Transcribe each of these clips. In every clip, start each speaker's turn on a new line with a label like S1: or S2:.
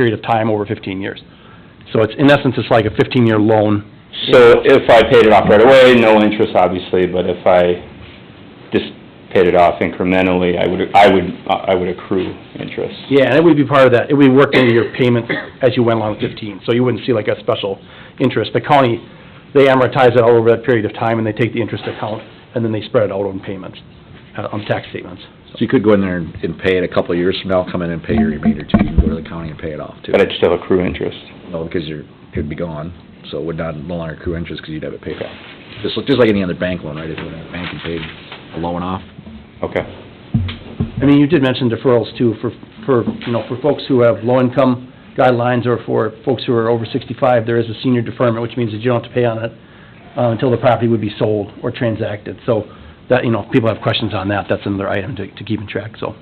S1: period of time over fifteen years. So it's, in essence, it's like a fifteen-year loan.
S2: So if I paid it off right away, no interest obviously, but if I just paid it off incrementally, I would, I would, I would accrue interest.
S1: Yeah, and it would be part of that, it would be worked into your payments as you went along with fifteen, so you wouldn't see like a special interest. The county, they amortize it all over that period of time, and they take the interest account, and then they spread it out on payments, uh, on tax statements.
S3: So you could go in there and and pay it a couple of years from now, come in and pay your remainder too, you can go to the county and pay it off too.
S2: But I'd still accrue interest.
S3: No, because you're, it'd be gone, so it would not, no longer accrue interest because you'd have it paid off. Just, like- just like any other bank loan, right, if you went to a bank and paid a loan off,
S2: Okay.
S1: I mean, you did mention deferrals too, for, for, you know, for folks who have low-income guidelines, or for folks who are over sixty-five, there is a senior deferment, which means that you don't have to pay on it uh, until the property would be sold or transacted, so that, you know, if people have questions on that, that's another item to, to keep in track, so.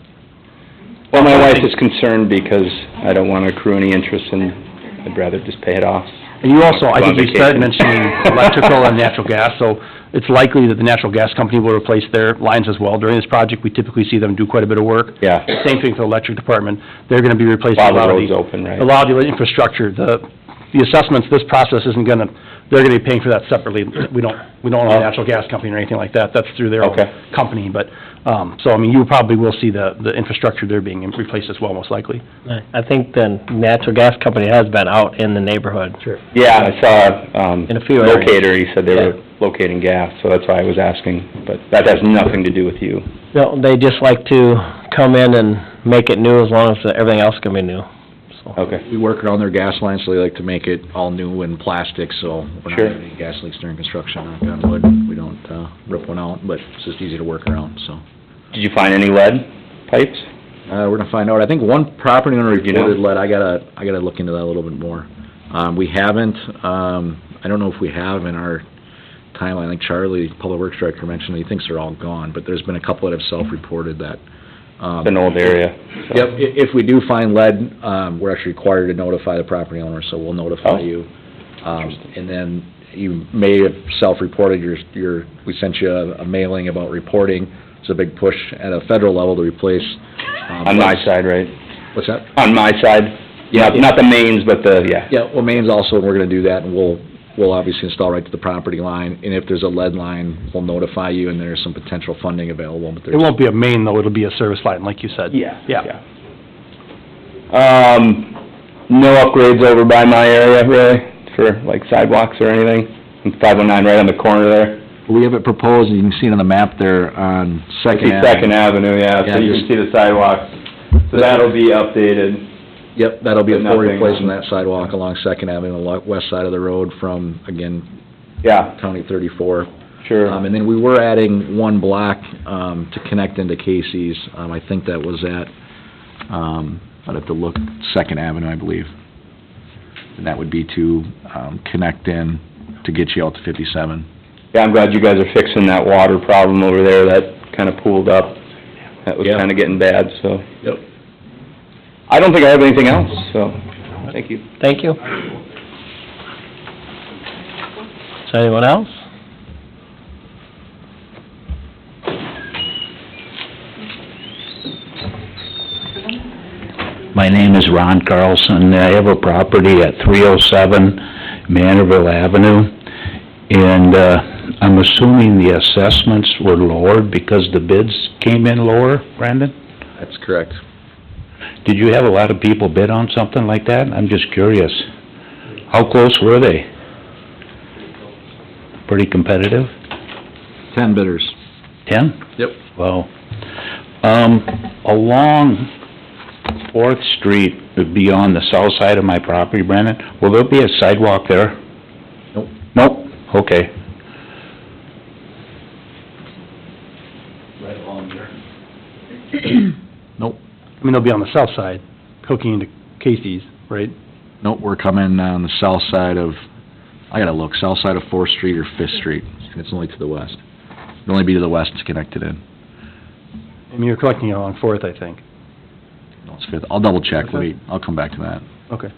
S2: Well, my wife is concerned because I don't want to accrue any interest and I'd rather just pay it off.
S1: And you also, I think you started
S2: Go on
S1: mentioning
S2: vacation.
S1: electrical and natural gas, so it's likely that the natural gas company will replace their lines as well. During this project, we typically see them do quite a bit of work.
S2: Yeah.
S1: Same thing for the electric department, they're gonna be replacing a lot
S2: While the
S1: of the...
S2: road's open, right?
S1: A lot of the infrastructure, the, the assessments, this process isn't gonna, they're gonna be paying for that separately. We don't, we don't own a
S2: Oh.
S1: natural gas company or anything like that, that's through their own
S2: Okay.
S1: company, but, um, so, I mean, you probably will see the, the infrastructure there being replaced as well, most likely.
S4: I I think the natural gas company has been out in the neighborhood.
S1: Sure.
S2: Yeah, I saw, um,
S4: In a few areas.
S2: locator, he said they were locating gas, so that's why I was asking, but that has nothing to do with you.
S4: No, they just like to come in and make it new as long as everything else can be new, so.
S2: Okay,
S3: we work around their gas lines, so they like to make it all new and plastic, so we're not
S2: Sure.
S3: having any gas leaks during construction, knock on wood, we don't, uh, rip one out, but it's just easy to work around, so.
S2: did you find any lead pipes?
S3: Uh, we're gonna find out. I think one property owner
S2: You know?
S3: reported lead. I gotta, I gotta look into that a little bit more. Um, we haven't, um, I don't know if we have in our timeline. I think Charlie, Public Works Director, mentioned he thinks they're all gone, but there's been a couple that have self-reported that. um,
S2: It's an old area. so-
S3: Yep, i- if we do find lead, um, we're actually required to notify the property owner, so we'll
S2: Oh.
S3: notify you. Um, and then you may have self-reported your, your, we sent you a a mailing about reporting. It's a big push at a federal level to replace. um,
S2: On my side, right?
S3: What's that?
S2: On my side?
S3: Yeah.
S2: Not, not the mains, but the, yeah.
S3: Yeah, well, Maine's also, we're gonna do that, and we'll, we'll obviously install right to the property line, and if there's a lead line, we'll notify you, and there's some potential funding available, but
S1: It
S3: there's,
S1: won't be a main, though, it'll be a service line, like you said.
S2: Yeah.
S1: Yeah.
S2: Um, no upgrades over by my area, really, for like sidewalks or anything? Five oh nine right on the corner there?
S3: we have it proposed, and you can see it on the map there on
S2: I see
S3: Second
S2: Second Avenue, yeah,
S3: Yeah,
S2: so you
S3: just-
S2: can see the sidewalks. So that'll be updated.
S3: Yep, that'll be a
S2: But
S3: full
S2: nothing on-
S3: replacement of that sidewalk along Second Avenue, the lo- west side of the road from, again,
S2: Yeah,
S3: County thirty-four.
S2: sure.
S3: Um, and then we were adding one block, um, to connect into Casey's, um, I think that was at, um, I'd have to look, Second Avenue, I believe. And that would be to, um, connect in to get you out to fifty-seven.
S2: Yeah, I'm glad you guys are fixing that water problem over there, that kinda pooled up. That was
S3: Yeah.
S2: kinda getting bad, so.
S3: Yep.
S2: I don't think I have anything else, so, thank you.
S4: Thank you. So anyone else?
S5: My name is Ron Carlson. I have a property at 307 Manorville Avenue, and uh, I'm assuming the assessments were lowered because the bids came in lower, Brandon?
S3: That's correct.
S5: Did you have a lot of people bid on something like that? I'm just curious. How close were they? Pretty competitive?
S3: Ten bidders.
S5: Ten?
S3: Yep.
S5: Wow. Um, along Fourth Street, beyond the south side of my property, Brandon, will there be a sidewalk there?
S3: Nope.
S5: Nope, okay.
S3: Nope,
S1: I mean, they'll be on the south side, hooking into Casey's, right?
S3: nope, we're coming on the south side of, I gotta look, south side of Fourth Street or Fifth Street, and it's only to the west. It'd only be to the west it's connected in.
S1: I mean, you're collecting it on Fourth, I think.
S3: No, it's Fifth, I'll double check,
S1: What's that?
S3: wait, I'll come back to that.
S1: Okay.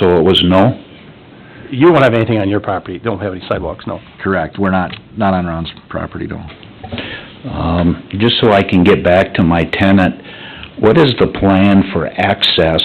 S5: So it was no?
S1: You won't have anything on your property, don't have any sidewalks, no.
S3: Correct, we're not, not on Ron's property, no.
S5: Um, just so I can get back to my tenant,
S2: What is the plan for access